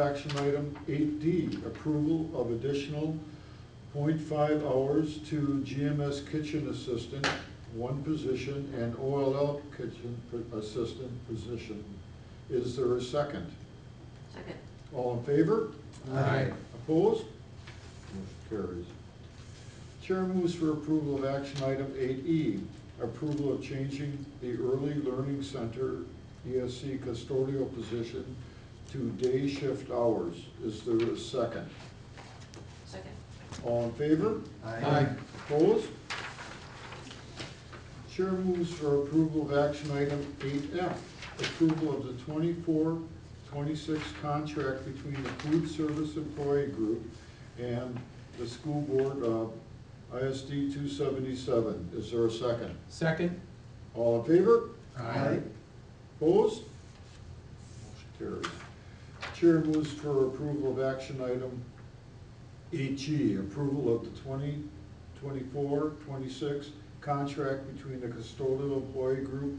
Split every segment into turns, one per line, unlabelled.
Action item eight D, approval of additional 0.5 hours to GMS kitchen assistant, one position, and OLL kitchen pr- assistant position. Is there a second?
Second.
All in favor?
Aye.
Opposed? Motion carries. Chair moves for approval of action item eight E, approval of changing the Early Learning Center ESC custodial position to day shift hours. Is there a second?
Second.
All in favor?
Aye. Aye.
Opposed? Chair moves for approval of action item eight F, approval of the 24-26 contract between the Food Service Employee Group and the School Board of ISD two seventy-seven. Is there a second?
Second?
All in favor?
Aye.
Opposed? Motion carries. Chair moves for approval of action item HE, approval of the 20, 24, 26 contract between the custodial employee group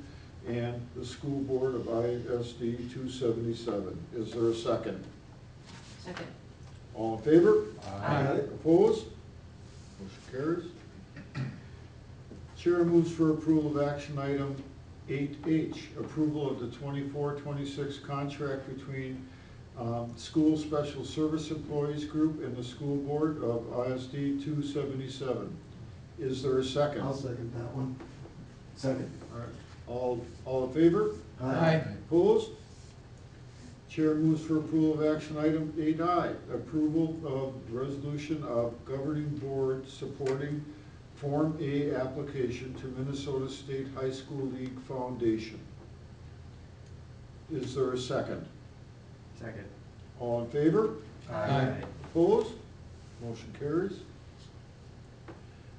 and the school board of ISD 277. Is there a second?
Second.
All in favor?
Aye.
Opposed? Motion carries. Chair moves for approval of action item eight H, approval of the 24-26 contract between um, School Special Service Employees Group and the School Board of ISD two seventy-seven. Is there a 2nd
I'll second that one. Second.
All, all in favor?
Aye.
Opposed? Chair moves for approval of action item eight I, approval of resolution of governing board supporting Form A application to Minnesota State High School League Foundation. Is there a second?
Second.
All in favor?
Aye.
Opposed? Motion carries.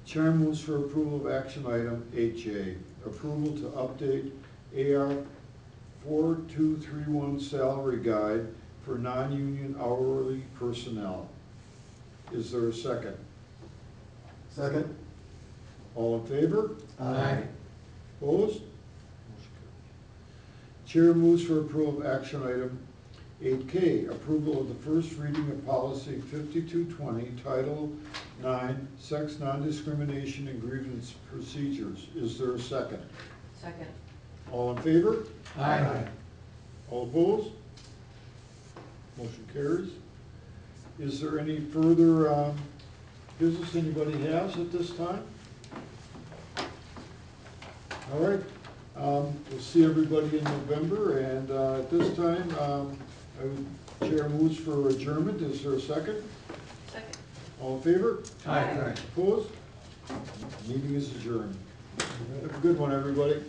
Chair moves for approval of action item HA, approval to update AR four-two-three-one salary guide for non-union hourly personnel. Is there a second?
Second?
All in favor?
Aye.
Opposed? Chair moves for approval of action item eight K, approval of the first reading of policy fifty-two twenty, title nine, sex non-discrimination and grievance procedures. Is there a second?
Second.
All in favor?
Aye.
All opposed? Motion carries. Is there any further um, business anybody has at this time? All right, um, we'll see everybody in November, and uh, at this time, um, I would, Chair moves for adjournment. Is there a second?
Second.
All in favor?
Aye.
Opposed? Meeting is adjourned. Have a good one, everybody.